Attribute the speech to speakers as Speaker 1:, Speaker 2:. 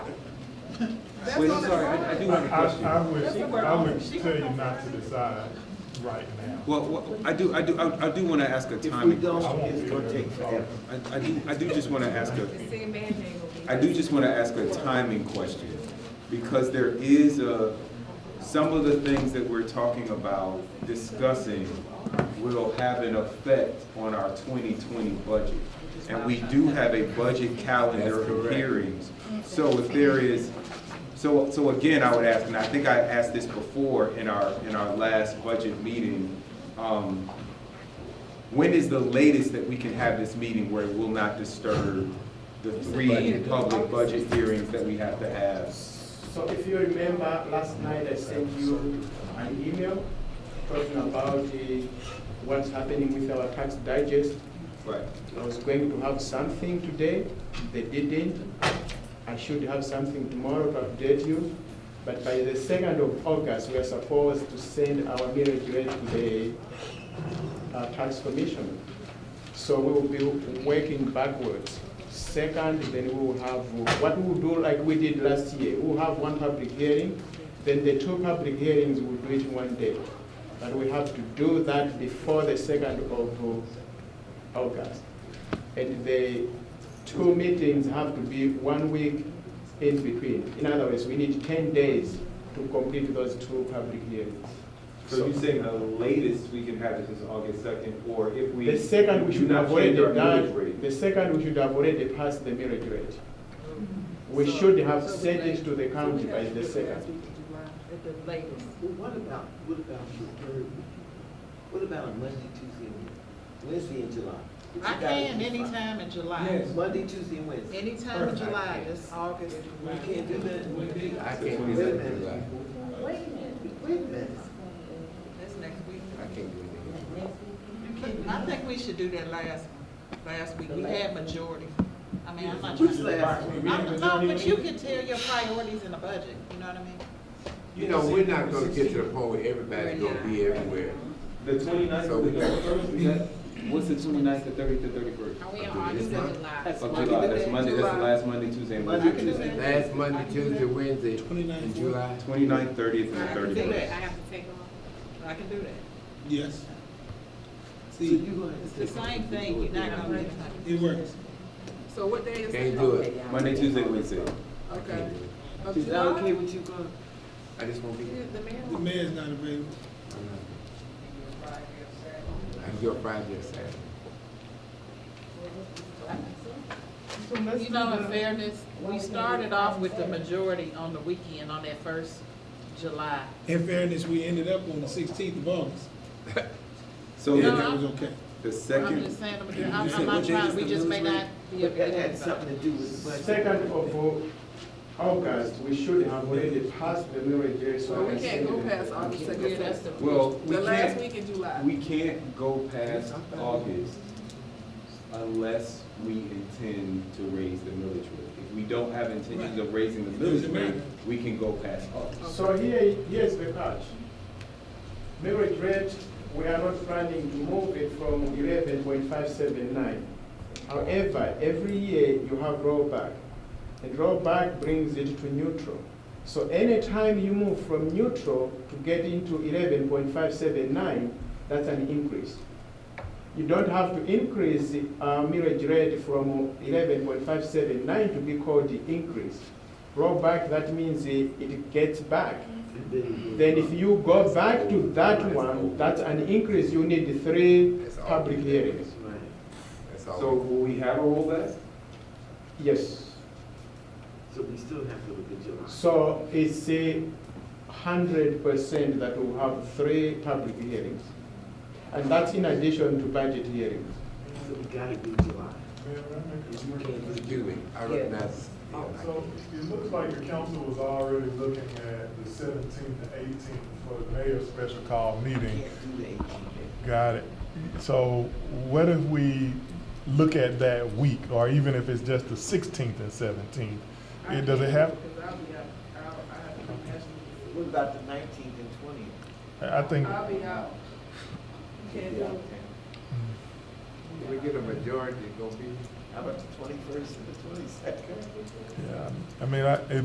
Speaker 1: That's
Speaker 2: Wait,
Speaker 1: all
Speaker 2: I'm
Speaker 1: that-
Speaker 2: sorry, I, I do have a question.
Speaker 3: I, I would, I would tell you not to decide right now.
Speaker 2: Well, well, I do, I do, I I do want to ask a
Speaker 4: If we
Speaker 2: timing. question.
Speaker 4: don't, it's gonna take forever.
Speaker 2: I, I do, I do just want to ask a,
Speaker 5: The same band name will be.
Speaker 2: I do just want to ask a timing question, because there is a, some of the things that we're talking about, discussing, will have an effect on our 2020 budget. And we do have a budget calendar of hearings. So if there is, so, so again, I would ask, and I think I asked this before in our, in our last budget meeting, um, when is the latest that we can have this meeting where it will not disturb the three public budget hearings that we have to have?
Speaker 4: So if you remember, last night I sent you an email talking about the, what's happening with our tax digest.
Speaker 2: Right.
Speaker 4: I was going to have something today, they didn't. I should have something tomorrow to update you. But by the second of August, we are supposed to send our millage rate to the uh, tax commission. So we will be working backwards. Second, then we will have, what we will do like we did last year, we will have one public hearing, then the two public hearings will do it one day. But we have to do that before the second of uh, August. And the two meetings have to be one week in between. In other words, we need ten days to complete those two public hearings.
Speaker 2: So you're saying the latest we can have this is August second, or if we.
Speaker 4: The second, we
Speaker 2: do
Speaker 4: should
Speaker 2: not
Speaker 4: have already
Speaker 2: change our millage
Speaker 4: done,
Speaker 2: rate.
Speaker 4: the second, we should have already passed the merit rate.
Speaker 5: Mm-hmm.
Speaker 4: We should have sent it to the county by the second.
Speaker 5: At the latest.
Speaker 6: Well, what about, what about the third week? What about Monday, Tuesday, and Wednesday in July?
Speaker 1: I can anytime in July.
Speaker 6: Monday, Tuesday, and Wednesday.
Speaker 1: Anytime in July, it's August.
Speaker 6: We can't do that.
Speaker 7: I
Speaker 6: Wait a
Speaker 7: can't do that in July.
Speaker 6: minute. Wait a minute.
Speaker 5: That's next week.
Speaker 7: I can't do anything.
Speaker 1: I think we should do that last, last week. We had majority. I mean, I'm not trying
Speaker 6: Who's
Speaker 1: to.
Speaker 6: last? week?
Speaker 1: I'm- No, but you can tell your priorities in the budget, you know what I mean?
Speaker 7: You know, we're not gonna get to the point where everybody's gonna be everywhere.
Speaker 2: The 29th
Speaker 7: So
Speaker 2: to
Speaker 7: we
Speaker 2: the
Speaker 7: got-
Speaker 2: thirty-first, is that, what's the 29th, the thirtieth, the thirty-first?
Speaker 5: Are we in
Speaker 7: Okay, this
Speaker 5: August or
Speaker 7: month?
Speaker 2: Of
Speaker 5: July?
Speaker 2: July, that's Monday, that's the last Monday, Tuesday, and
Speaker 6: Monday,
Speaker 2: Wednesday.
Speaker 6: Tuesday.
Speaker 7: Last Monday, Tuesday, Wednesday, in July.
Speaker 2: Twenty-ninth, thirtieth, and
Speaker 5: I
Speaker 2: the
Speaker 5: can do that, I
Speaker 2: thirty-first.
Speaker 5: have to take off.
Speaker 1: I can do that.
Speaker 8: Yes.
Speaker 6: So
Speaker 8: See,
Speaker 6: you gonna have to
Speaker 1: It's the
Speaker 6: take-
Speaker 1: same thing, you're not gonna.
Speaker 8: it works.
Speaker 5: So what day is it?
Speaker 7: Can't do it.
Speaker 2: Monday, Tuesday, Wednesday.
Speaker 5: Okay. Of
Speaker 6: Is that okay
Speaker 5: July?
Speaker 6: with you, Gordon?
Speaker 7: I just won't be
Speaker 5: Yeah,
Speaker 7: here.
Speaker 5: The mayor.
Speaker 8: The mayor's not available.
Speaker 7: I can go Friday or Saturday.
Speaker 1: You know, in fairness, we started off with the majority on the weekend, on that first July.
Speaker 8: In fairness, we ended up on the sixteenth of August.
Speaker 2: So
Speaker 8: Yeah,
Speaker 1: No,
Speaker 2: the-
Speaker 8: that was
Speaker 1: I'm-
Speaker 8: okay.
Speaker 2: the
Speaker 1: I'm just
Speaker 2: second,
Speaker 1: saying, the majority. I'm,
Speaker 8: You
Speaker 1: I'm
Speaker 8: said
Speaker 1: not
Speaker 8: what day
Speaker 1: trying,
Speaker 8: is
Speaker 1: we
Speaker 8: the
Speaker 1: just may
Speaker 8: newsroom?
Speaker 1: not be
Speaker 6: That
Speaker 1: available.
Speaker 6: had something to do with the budget.
Speaker 4: Second of all, August, we should have already passed the merit rate. so
Speaker 5: Well,
Speaker 4: I
Speaker 5: we
Speaker 4: can
Speaker 5: can't go
Speaker 4: send it.
Speaker 5: past August
Speaker 1: Yeah, that's
Speaker 5: second.
Speaker 1: the.
Speaker 2: well, we
Speaker 5: The last
Speaker 2: can't,
Speaker 5: week in July.
Speaker 2: we can't go past August unless we intend to raise the millage rate. If we don't have intentions of raising the millage
Speaker 8: Doesn't
Speaker 2: rate,
Speaker 8: matter.
Speaker 2: we can go past August.
Speaker 4: So here, here's the catch. Merit rate, we are not planning to move it from eleven point five seven nine. However, every year you have rollback, and rollback brings it to neutral. So anytime you move from neutral to get into eleven point five seven nine, that's an increase. You don't have to increase the uh, millage rate from eleven point five seven nine to be called the increase. Rollback, that means it, it gets back. Then if you go back to that one, that's an increase, you need three
Speaker 7: That's all.
Speaker 4: public hearings.
Speaker 6: Right.
Speaker 7: That's
Speaker 2: So
Speaker 7: all.
Speaker 2: will we have a rollback?
Speaker 4: Yes,
Speaker 6: So we still have to look at July.
Speaker 4: so it's a hundred percent that we'll have three public hearings. And that's in addition to budget hearings.
Speaker 6: So we gotta do July. You can't do
Speaker 7: Excuse me, I recognize. yeah,
Speaker 6: Oh,
Speaker 7: I
Speaker 3: So
Speaker 7: can't.
Speaker 3: it looks like the council was already looking at the seventeenth and eighteenth for the mayor's special call meeting.
Speaker 6: Can't do the eighteen.
Speaker 3: Got it. So what if we look at that week, or even if it's just the sixteenth and seventeenth? It doesn't have,
Speaker 5: Because I'll be out, I'll, I have to
Speaker 6: What about the nineteenth and twentieth?
Speaker 3: I think,
Speaker 5: I'll be out. Can't do it.
Speaker 7: If we get a majority, it's gonna be.
Speaker 6: How about the twenty-first and the twenty-second?
Speaker 3: yeah, I mean, I, it